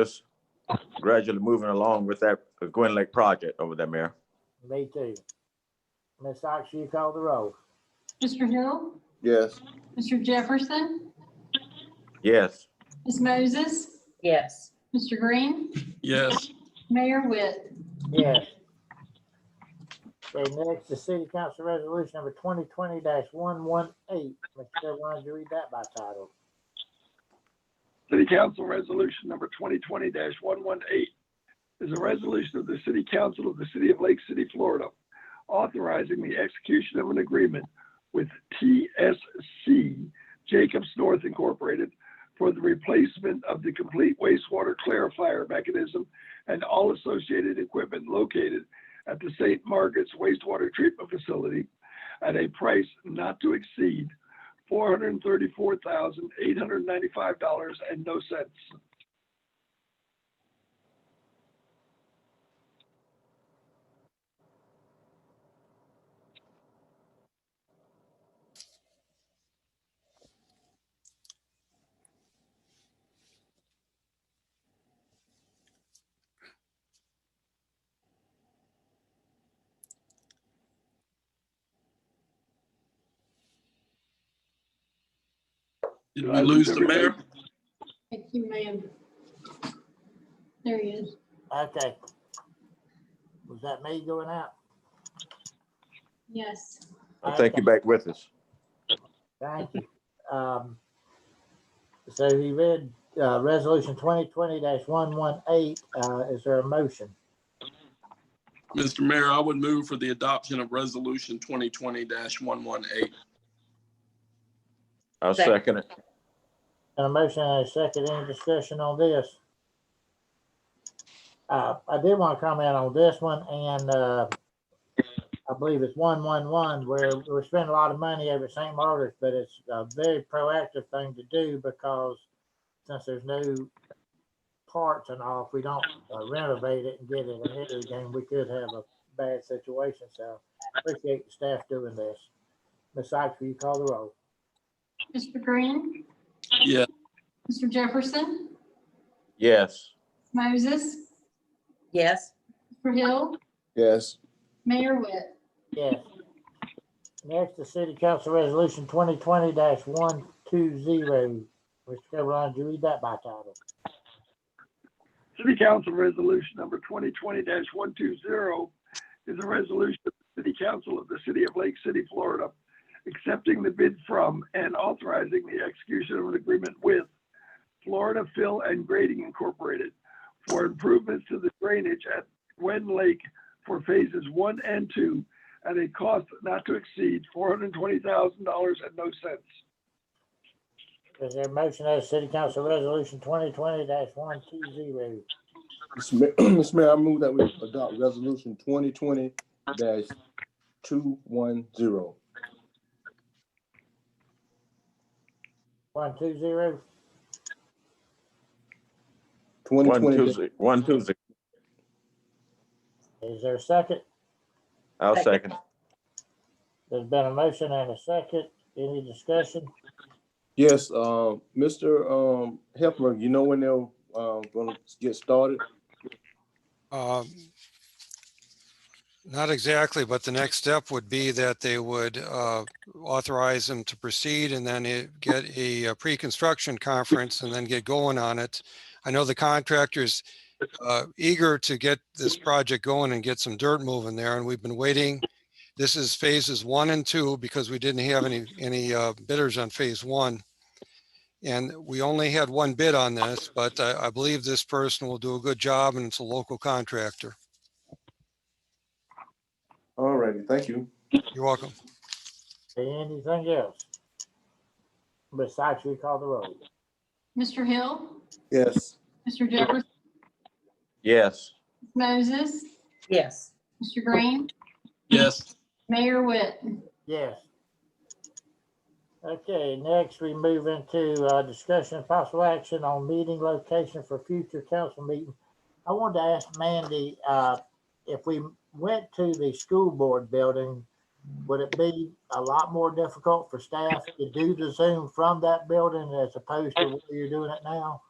just gradually moving along with that Gwin Lake project over there, Mayor. Me too. Ms. Axie, you call the roll. Mr. Hill, Yes. Mr. Jefferson, Yes, Ms. Moses, Yes. Mr. Green, yes, Mayor Witt. Yes. Okay, next, the city council resolution number twenty twenty one one eight. Mr. Chair, why don't you read that by title? City Council Resolution Number 2020-118 is a resolution of the City Council of the City of Lake City, Florida, authorizing the execution of an agreement with TSC Jacobs North Incorporated for the replacement of the complete wastewater clarifier mechanism and all associated equipment located at the St. Margaret's wastewater treatment facility at a price not to exceed four hundred and thirty-four thousand, eight hundred and ninety-five dollars and no cents. did we lose the mayor? I think you may have. There he is. Okay. Was that me going out? Yes. I think you're back with us. Thank you. Um, so he read, uh, resolution twenty twenty one one eight. Uh, is there a motion? Mr. Mayor, I would move for the adoption of Resolution 2020-118. I'll Second. second it. And a motion and a second, any discussion on this? Uh, I did want to comment on this one and, uh, I believe it's one, one, one, where we're spending a lot of money over St. Margaret's, but it's a very proactive thing to do because since there's no parts and all, if we don't uh, renovate it and get it ahead of the game, we could have a bad situation, so appreciate the staff doing this. Ms. Sykes, will you call the roll? Mr. Green, Yes, Mr. Jefferson, Yes, Moses, Yes. Mr. Hill, Yes. Mayor Witt. Yes. Next, the city council resolution twenty twenty one two zero. Mr. Caroline, do you read that by title? City Council Resolution Number twenty twenty one two zero is a resolution of the City Council of the City of Lake City, Florida, accepting the bid from and authorizing the execution of an agreement with Florida Fill and Grading Incorporated for improvements to the drainage at Gwen Lake for phases one and two at a cost not to exceed four hundred and twenty thousand dollars and no cents. Is there a motion as city council resolution twenty twenty one two zero? Mr. Mayor, I move that we adopt resolution twenty twenty two one zero. One two zero? Twenty one, two, twenty, ze- one, two, ze- Is there a second? I'll second. Second. it. There's been a motion and a second. Any discussion? yes, um, Mr. Um, Hefner, you know when they're, um, gonna get started? Um, Not exactly, but the next step would be that they would uh, authorize them to proceed and then it- get a uh, pre-construction conference and then get going on it. I know the contractor's uh, eager to get this project going and get some dirt moving there, and we've been waiting. This is phases one and two because we didn't have any, any uh, bidders on phase one. And we only had one bid on this, but I, I believe this person will do a good job and it's a local contractor. All righty, thank you. You're welcome. Anything else? Besides, we call the roll. Mr. Hill, Yes. Mr. Jefferson, Yes, Moses, Yes. Mr. Green, yes, Mayor Witt. Yes. Okay, next we move into uh, discussion and possible action on meeting location for future council meeting. I wanted to ask Mandy, uh, if we went to the school board building, would it be a lot more difficult for staff to do the Zoom from that building as opposed to where you're doing it now?